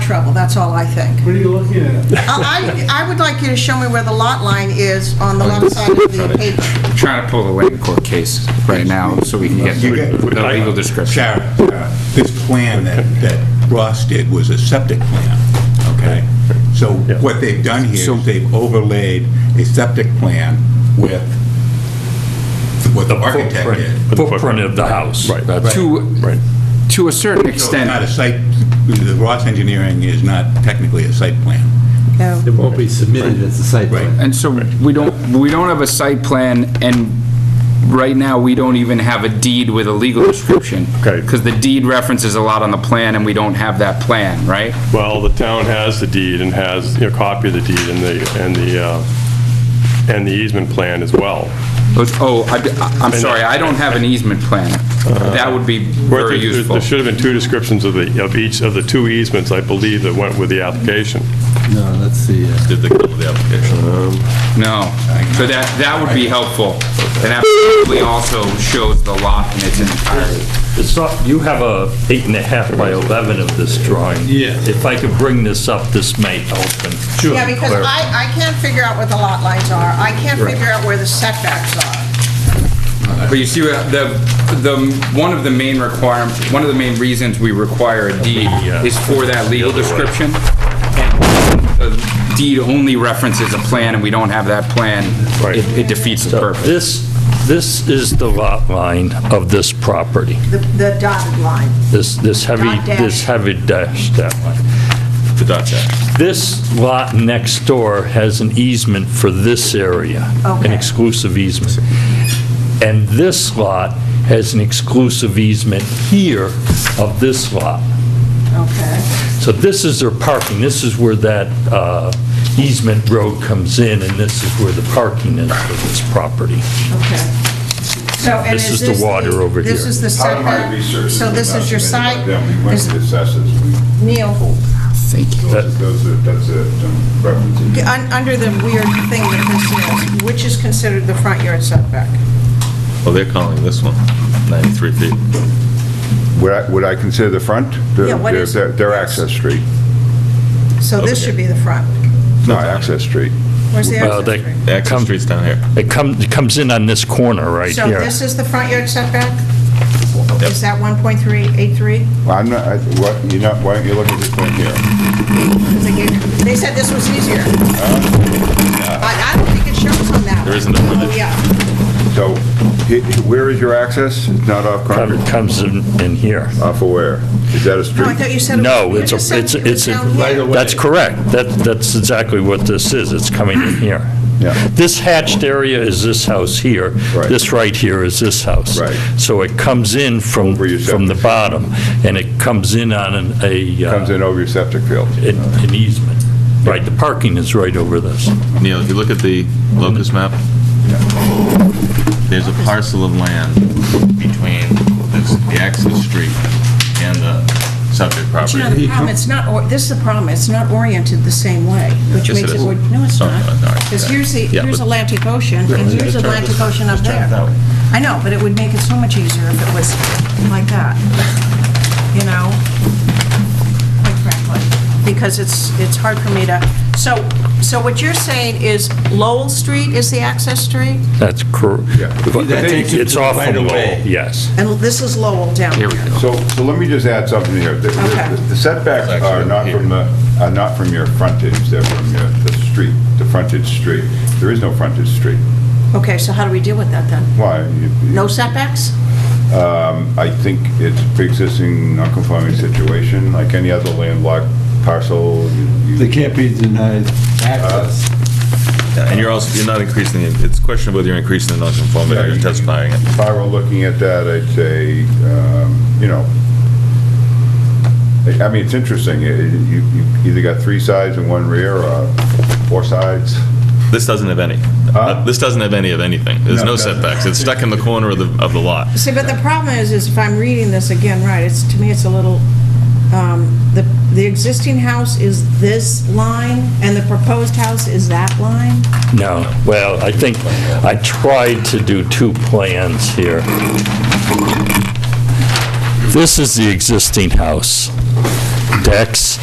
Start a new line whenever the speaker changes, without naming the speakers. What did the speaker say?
trouble, that's all I think.
What are you looking at?
I, I I would like you to show me where the lot line is on the left side of the page.
I'm trying to pull the land court case right now so we can get
You get-
the legal description.
Sarah, Sarah, uh, this plan that, that Ross did was a septic plan, okay? So what they've done here
So-
is they've overlaid a septic plan with what the architect did.
Footprint of the house.
Right.
That's-
To,
Right.
to a certain
So it's
extent,
not a site, the Ross Engineering is not technically a site plan.
No.
It won't be submitted as a site plan.
and so we don't, we don't have a site plan, and right now, we don't even have a deed with a legal description.
Okay.
Because the deed references a lot on the plan, and we don't have that plan, right?
Well, the town has the deed and has, you know, copy of the deed and the, and the, uh, and the easement plan as well.
Those- Oh, I, am sorry, I don't have an easement plan. That would be
Uh, Right,
very
there- there-
useful.
There should have been two descriptions of the, of each of the two easements, I believe, that went with the application.
No, that's the, uh,
Did they go with the application?
No, so that, that would be helpful. And that probably also shows the lot in its entirety.
It's not, you have a eight and a half by 11 of this drawing.
Yeah.
If I could bring this up, this may help and
Yeah, because
clarify.
I, I can't figure out what the lot lines are. I can't figure out where the setbacks are.
But you see, what the, the, one of the main requirement, one of the main reasons we require a deed
Yeah.
is for that legal description. And the deed only references a plan, and we don't have that plan.
Right.
It it defeats the
So
purpose.
this, this is the lot line of this property,
The the dotted line.
this, this heavy,
Dot dash.
this heavy dash, that line.
The dot
This lot next door has an easement for this area, an
Okay.
exclusive easement. And this lot has an exclusive easement here of this lot.
Okay.
So this is their parking, this is where that uh, easement road comes in, and this is where the parking is for this property.
Okay. So, and
This
is
is the
this
water over
This
here.
is the
Part of my
setback.
research.
uh, So this is your site,
We went to the
Is-
assessors. We-
Neil,
Those are- those are, that's a um, reference.
un- under the weird thing that this is, which is considered the front yard setback?
Well, they're calling this one 93 feet.
Would I- Would I consider the front?
Yeah, what
Their-
is-
Their their
yes.
access street,
So this should be the front.
not access street.
Where's the access
Well, Uh, they-
street?
The access street's down here.
It comes, it comes in on this corner right
So
here.
this is the front yard setback? Is that 1.383?
Well, I'm not, I- what, you know, why don't you look at this one here?
'Cause They gave- they said this was easier.
Uh,
I I don't think it shows on that. one.
There isn't a
Oh, Yeah.
So, he- where is your access? It's not off Concord,
Comes comes in, in here.
off of where? Is that a
No, I thought
street?
you said. it
No,
was-
it's,
you just
a
said
it's,
it
a-
was
it's, a-
down here.
that's correct. That, that's exactly what this is. It's coming in here.
Yeah.
This hatched area is this house here.
Right.
This right here is this house.
Right.
So it comes in from,
Over your
from the
septic.
bottom, and it comes in on an, a, uh,
Comes in over your septic field.
an an easement. Right, the parking is right over this.
Neil, if you look at the locus map, there's a parcel of land between this- the access street and the subject
But you know, the
property.
problem, it's not, or- this is the problem, it's not oriented the same way, which
Yes, it
makes it,
is.
would- no, it's
No,
not.
no, no, it's
Because
not.
here's the,
Yeah,
here's
but-
Atlantic Ocean, and here's
Just turn it
Atlantic
this-
Ocean up
just turn it that
there.
way.
I know, but it would make it so much easier if it was like that, you know? Quite frankly, because it's, it's hard for me to, so, so what you're saying is Lowell Street is the access street?
That's correct. It's off
Right
from
away.
Lowell, yes.
And this is Lowell down here.
So, so let me just add something here. The-
Okay.
The the setbacks are not from the, are not from your frontage, they're from your, the street, the frontage street. There is no frontage street.
Okay, so how do we deal with that then?
Why? You- you-
No setbacks?
I think it's pre-existing non-conforming situation, like any other landlocked parcel. you- you-
they can't be denied access.
Yeah, And you're also, you're not increasing, the- it's questionable whether you're increasing the nonconformity or you're testifying it.
If I were looking at that, I'd say, um, you know, I I mean, it's interesting, It- it- you, you either got three sides and one rear, or four sides.
This doesn't have any.
Huh?
This doesn't have any of anything. There's
No,
no
it doesn't.
setbacks. It's stuck in the corner of the, of the lot.
See, but the problem is, is if I'm reading this again right, it's, to me, it's a little, um, the, the existing house is this line, and the proposed house is that line?
No, well, I think, I tried to do two plans here. This is the existing house. Decks,